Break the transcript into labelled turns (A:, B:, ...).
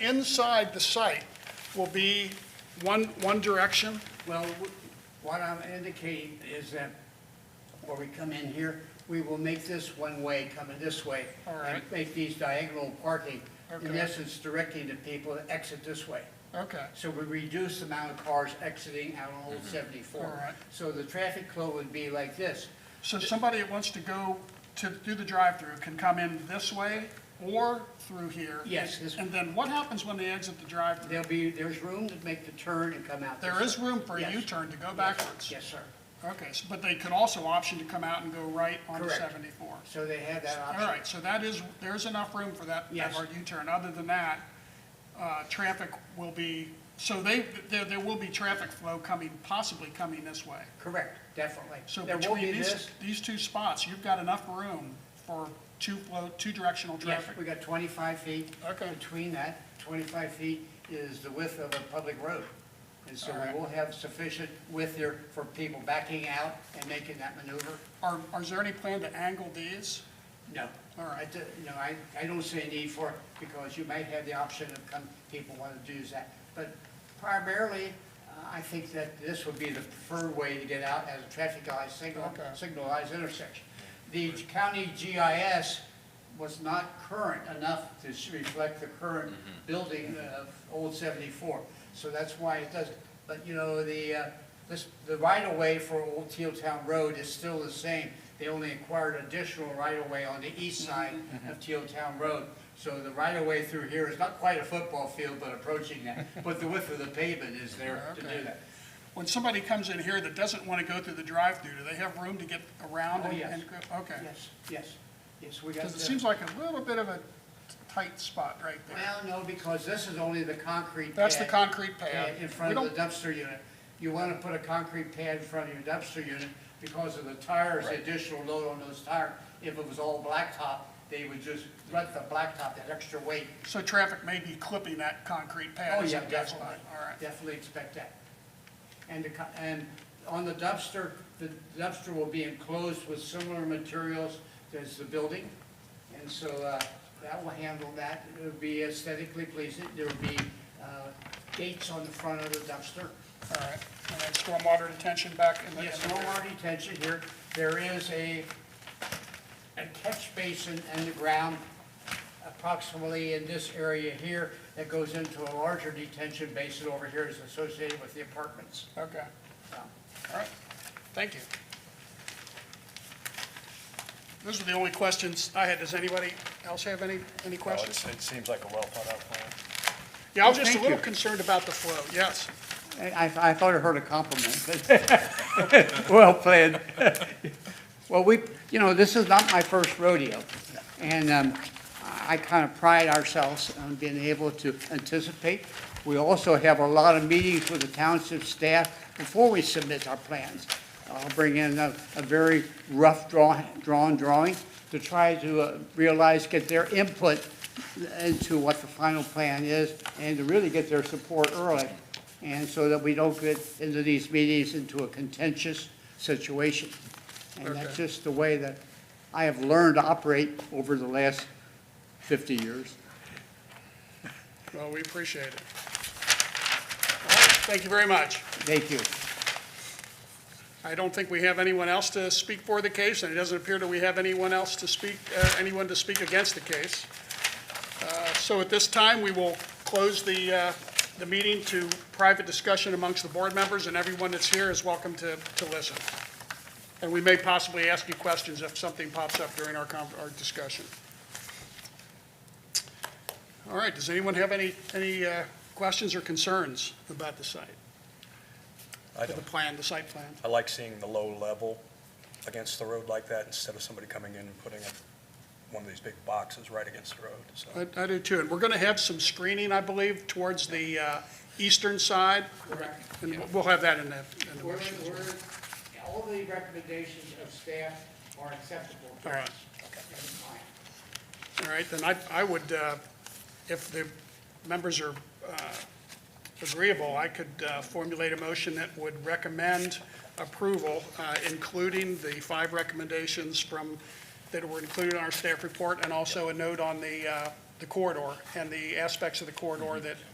A: inside the site will be one, one direction?
B: Well, w- what I'm indicating is that where we come in here, we will make this one-way coming this way.
A: All right.
B: And make these diagonal parking, in
A: Okay.
B: essence directing the people to exit this way.
A: Okay,
B: So we reduce the amount of cars exiting out on Old
A: All
B: 74.
A: right.
B: So the traffic flow would be like this.
A: so somebody that wants to go to, do the drive-through can come in this way or through here?
B: Yes, this-
A: And then what happens when they exit the drive-through?
B: There'll be, there's room to make the turn and come out. this
A: There is
B: way.
A: room for a
B: Yes.
A: U-turn to go
B: Yes.
A: backwards?
B: Yes, sir.
A: Okay, so- but they could also option to come out and go right onto
B: Correct.
A: 74?
B: So they have that
A: All
B: option.
A: right, so that is, there's enough room for that, that
B: Yes.
A: hard U-turn. Other than that, uh, traffic will be, so they, there, there will be traffic flow coming, possibly coming this way.
B: Correct, definitely.
A: So
B: There will be
A: between
B: this.
A: these, these two spots, you've got enough room for two flow, two directional
B: Yes,
A: traffic.
B: we got 25 feet.
A: Okay.
B: Between that, 25 feet is the width of a public road. And so
A: All right.
B: we will have sufficient width here for people backing out and making that maneuver.
A: Are, are there any plan to angle these?
B: No.
A: All right.
B: I do- No, I, I don't see a need for it because you might have the option of come, people want to do that. But primarily, uh, I think that this would be the preferred way to get out as a traffic light signal,
A: Okay.
B: signalized intersection. The county GIS was not current enough to s- reflect the current building of Old 74. So that's why it doesn't. But, you know, the, uh, this, the right-of-way for Old Teal Town Road is still the same. They only acquired additional right-of-way on the east
A: Mm-hmm.
B: side of Teal Town Road. So the right-of-way through here is not quite a football field, but approaching that. But the width of the pavement is there to do that.
A: When somebody comes in here that doesn't want to go through the drive-through, do they have room to get around?
B: Oh,
A: and-
B: yes.
A: and go- Okay.
B: Yes, yes, yes, we got
A: Because it
B: the-
A: seems like a little bit of a tight spot right there.
B: Well, no, because this is only the concrete
A: That's the
B: pad.
A: concrete
B: pad
A: pad.
B: in
A: We
B: front
A: don't-
B: of the dumpster unit. You want to put a concrete pad in front of your dumpster unit because of the tires, the additional load on those tires. If it was all blacktop, they would just let the blacktop, that extra weight.
A: So traffic may be clipping that concrete pad.
B: Oh,
A: as
B: yeah,
A: it goes
B: definitely,
A: by. All right.
B: definitely expect that. And the, co- and on the dumpster, the dumpster will be enclosed with similar materials as the building. And so, uh, that will handle that, it'll be aesthetically pleasing, there'll be, uh, gates on the front of the dumpster.
A: All right. And then stormwater detention back in the.
B: Yes, no more detention here, there is a, a catch basin in the ground approximately in this area here that goes into a larger detention basin over here is associated with the apartments.
A: Okay.
B: So,
A: All right. Thank you. Those are the only questions I had. Does anybody else have any, any
C: Well,
A: questions?
C: it's- It seems like a well-thought-out plan.
A: Yeah, I was just a
B: Thank
A: little
B: you.
A: concerned about the flow. Yes.
B: I, I I thought I heard a compliment, but, well played. Well, we, you know, this is not my first rodeo, and um, I kind of pride ourselves on being able to anticipate. We also have a lot of meetings with the township staff before we submit our plans. I'll bring in a, a very rough draw, drawn drawing to try to uh, realize, get their input into what the final plan is, and to really get their support early, and so that we don't get into these meetings into a contentious situation. And that's
A: Okay.
B: just the way that I have learned to operate over the last 50 years.
A: Well, we appreciate it. All right. Thank you very much.
B: Thank you.
A: I don't think we have anyone else to speak for the case, and it doesn't appear that we have anyone else to speak, uh, anyone to speak against the case. Uh, So at this time, we will close the, uh, the meeting to private discussion amongst the board members, and everyone that's here is welcome to, to listen. And we may possibly ask you questions if something pops up during our, con- our discussion. All right, does anyone have any, any uh, questions or concerns about the site?
C: I
A: The
C: don't,
A: plan, the site plan?
C: I like seeing the low level against the road like that instead of somebody coming in and putting up one of these big boxes right against the road, so.
A: I I do too, and we're going to have some screening, I believe, towards the uh, eastern side.
B: Correct.
A: And we'll- we'll have that in the, in the
B: We're,
A: motion as well.
B: we're, all the recommendations of staff are acceptable. to
A: All right.
B: us. And fine.
A: All right, then I, I would, uh, if the members are uh, agreeable, I could uh, formulate a motion that would recommend approval, uh, including the five recommendations from, that were included in our staff report, and also a note on the, uh, the corridor and the aspects of the corridor that